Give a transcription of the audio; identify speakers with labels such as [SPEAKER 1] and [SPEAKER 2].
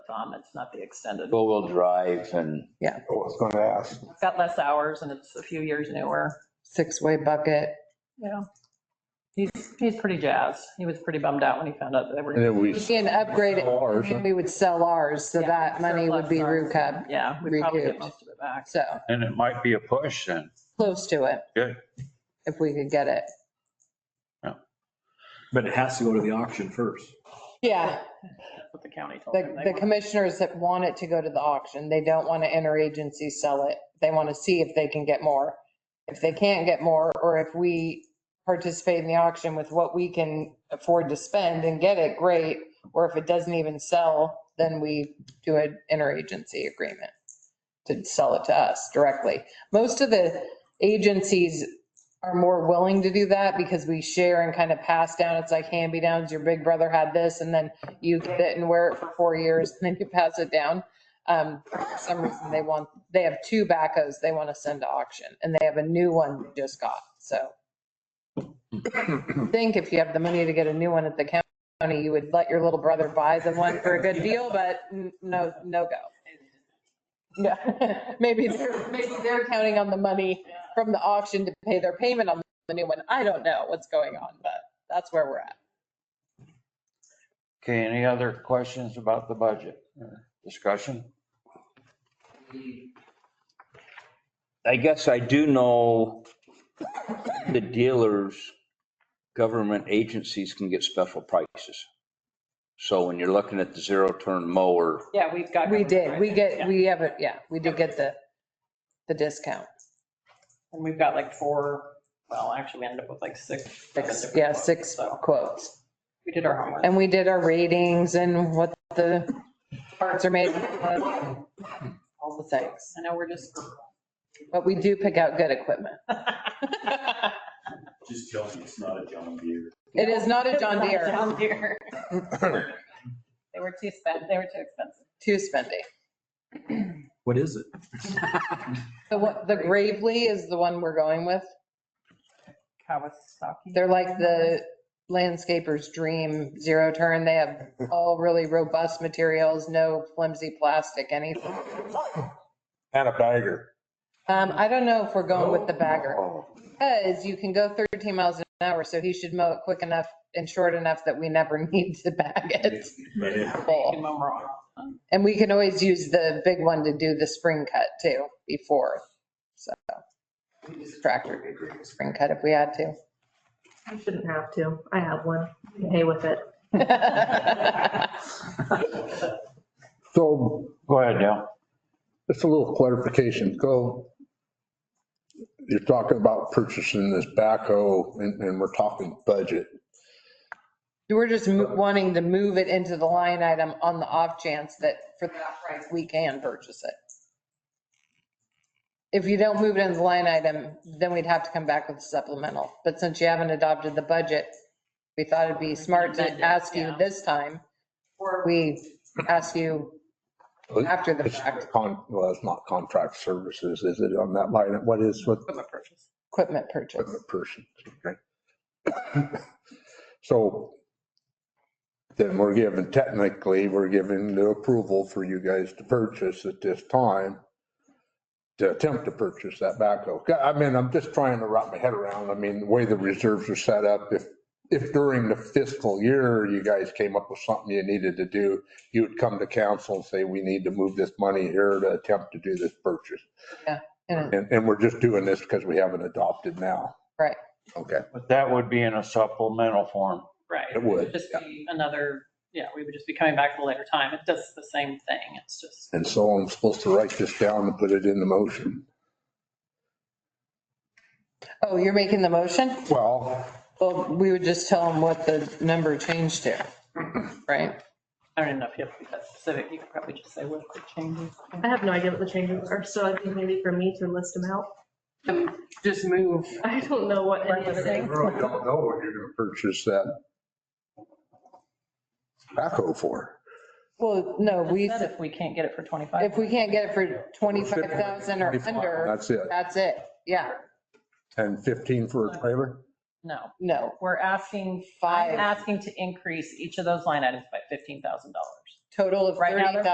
[SPEAKER 1] from. um, It's not the extended.
[SPEAKER 2] four-wheel drive and
[SPEAKER 3] I was going to ask.
[SPEAKER 1] It's got less hours and it's a few years newer.
[SPEAKER 4] six-way bucket.
[SPEAKER 1] Yeah. He's, he's pretty jazzed. He was pretty bummed out when he found out that they
[SPEAKER 5] And
[SPEAKER 1] were,
[SPEAKER 5] then we,
[SPEAKER 4] It'd be an upgrade,
[SPEAKER 5] Ours.
[SPEAKER 4] and we would sell ours, so
[SPEAKER 1] Yeah,
[SPEAKER 4] that money would be
[SPEAKER 1] surplus
[SPEAKER 4] RUCA,
[SPEAKER 1] yeah, we probably get
[SPEAKER 4] Recouped.
[SPEAKER 1] most of it back.
[SPEAKER 4] so
[SPEAKER 2] and it might be a push then.
[SPEAKER 4] close to it.
[SPEAKER 2] Good.
[SPEAKER 4] If we could get it.
[SPEAKER 6] But it has to go to the auction first.
[SPEAKER 4] Yeah,
[SPEAKER 1] That's what the county told him.
[SPEAKER 4] the,
[SPEAKER 1] They
[SPEAKER 4] the
[SPEAKER 1] were-
[SPEAKER 4] commissioners that want it to go to the auction, they don't want to interagency sell it. They want to see if they can get more. If they can't get more, or if we participate in the auction with what we can afford to spend and get it, great. Or if it doesn't even sell, then we do an interagency agreement to sell it to us directly. Most of the agencies are more willing to do that because we share and kind of pass down. It's like hand-me-downs, your big brother had this, and then you get it and wear it for four years, and then you pass it down. Um, For some reason, they want, they have two backhoes they want to send to auction, and they have a new one they just got, so. I Think if you have the money to get a new one at the county, you would let your little brother buy the one for a good deal, but n- no, no go. Yeah, maybe they're, maybe they're counting on the money from the auction to pay their payment on the new one. I don't know what's going on, but that's where we're at.
[SPEAKER 2] Okay, any other questions about the budget or discussion?
[SPEAKER 5] I guess I do know the dealers, government agencies can get special prices. So when you're looking at the zero-turn mower,
[SPEAKER 1] Yeah, we've got.
[SPEAKER 4] We
[SPEAKER 1] government
[SPEAKER 4] did, we
[SPEAKER 1] pricing,
[SPEAKER 4] get,
[SPEAKER 1] yeah.
[SPEAKER 4] we have it, yeah, we did get the, the discount.
[SPEAKER 1] And we've got like four, well, actually we ended up with like six. seven different
[SPEAKER 4] Yeah,
[SPEAKER 1] quotes,
[SPEAKER 4] six
[SPEAKER 1] So
[SPEAKER 4] quotes.
[SPEAKER 1] we did our homework.
[SPEAKER 4] And we did our ratings and what the parts are made, of, all the things.
[SPEAKER 1] I know we're just.
[SPEAKER 4] But we do pick out good equipment.
[SPEAKER 6] Just tell me it's not a John Deere.
[SPEAKER 4] It is not a John Deere,
[SPEAKER 1] John Deere. They were too spent, they were too expensive.
[SPEAKER 4] too spendy.
[SPEAKER 6] What is it?
[SPEAKER 4] The one, the Gravely is the one we're going with.
[SPEAKER 1] Kawasaki.
[SPEAKER 4] They're like the landscaper's dream zero turn. They have all really robust materials, no flimsy plastic, anything.
[SPEAKER 3] And a bagger.
[SPEAKER 4] Um, I don't know if we're going with the bagger. Because you can go 13 miles an hour, so he should mow it quick enough and short enough that we never need to bag it.
[SPEAKER 1] Making them wrong.
[SPEAKER 4] And we can always use the big one to do the spring cut too, before, so. we use the Tractor, to do the spring cut if we had
[SPEAKER 7] You shouldn't have to. I have one. I'm Okay with it.
[SPEAKER 4] to.
[SPEAKER 8] So
[SPEAKER 2] Go ahead, Dale.
[SPEAKER 8] just a little clarification, go. You're talking about purchasing this backhoe and, and we're talking budget.
[SPEAKER 4] We're just mo- wanting to move it into the line item on the off chance that for that price, we can purchase it. If you don't move it into the line item, then we'd have to come back with supplemental. But since you haven't adopted the budget, we thought it'd be smart to
[SPEAKER 1] amend it,
[SPEAKER 4] ask you
[SPEAKER 1] yeah.
[SPEAKER 4] this time. Or we ask you after the
[SPEAKER 8] It's
[SPEAKER 4] fact,
[SPEAKER 8] con- Well, it's not contract services, is it on that line? What is, what
[SPEAKER 1] Equipment purchase.
[SPEAKER 4] equipment purchase.
[SPEAKER 8] equipment person? okay? So then we're given, technically, we're given the approval for you guys to purchase at this time to attempt to purchase that backhoe. I mean, I'm just trying to wrap my head around, I mean, the way the reserves are set up, if, if during the fiscal year you guys came up with something you needed to do, you would come to council and say, we need to move this money here to attempt to do this purchase.
[SPEAKER 4] Yeah, and-
[SPEAKER 8] And, and we're just doing this because we haven't adopted now.
[SPEAKER 4] Right.
[SPEAKER 8] Okay,
[SPEAKER 2] But that would be in a supplemental form.
[SPEAKER 1] Right.
[SPEAKER 8] It would,
[SPEAKER 1] Just be another, yeah, we would just be coming back at a later time. It does the same thing. It's just,
[SPEAKER 8] and so I'm supposed to write this down and put it in the motion.
[SPEAKER 4] Oh, you're making the motion?
[SPEAKER 8] Well,
[SPEAKER 4] Well, we would just tell them what the number changed to, right?
[SPEAKER 1] I don't even know if you have to be that specific. You could probably just say what the changes.
[SPEAKER 7] I have no idea what the changes are, so I think maybe for me to list them out.
[SPEAKER 1] Just move.
[SPEAKER 7] I don't know what any of it
[SPEAKER 8] I
[SPEAKER 7] is.
[SPEAKER 8] really don't know what you're gonna purchase that backhoe for.
[SPEAKER 4] Well, no, we.
[SPEAKER 1] Said if we can't get it for 25.
[SPEAKER 4] If we can't get it for 25,000 or under,
[SPEAKER 8] That's it.
[SPEAKER 4] that's it. Yeah,
[SPEAKER 8] And 15 for a trailer?
[SPEAKER 1] No,
[SPEAKER 4] no,
[SPEAKER 1] we're asking, I'm
[SPEAKER 4] five,
[SPEAKER 1] asking to increase each of those line items by $15,000.
[SPEAKER 4] total of
[SPEAKER 1] Right now,
[SPEAKER 4] 30,000.
[SPEAKER 1] they're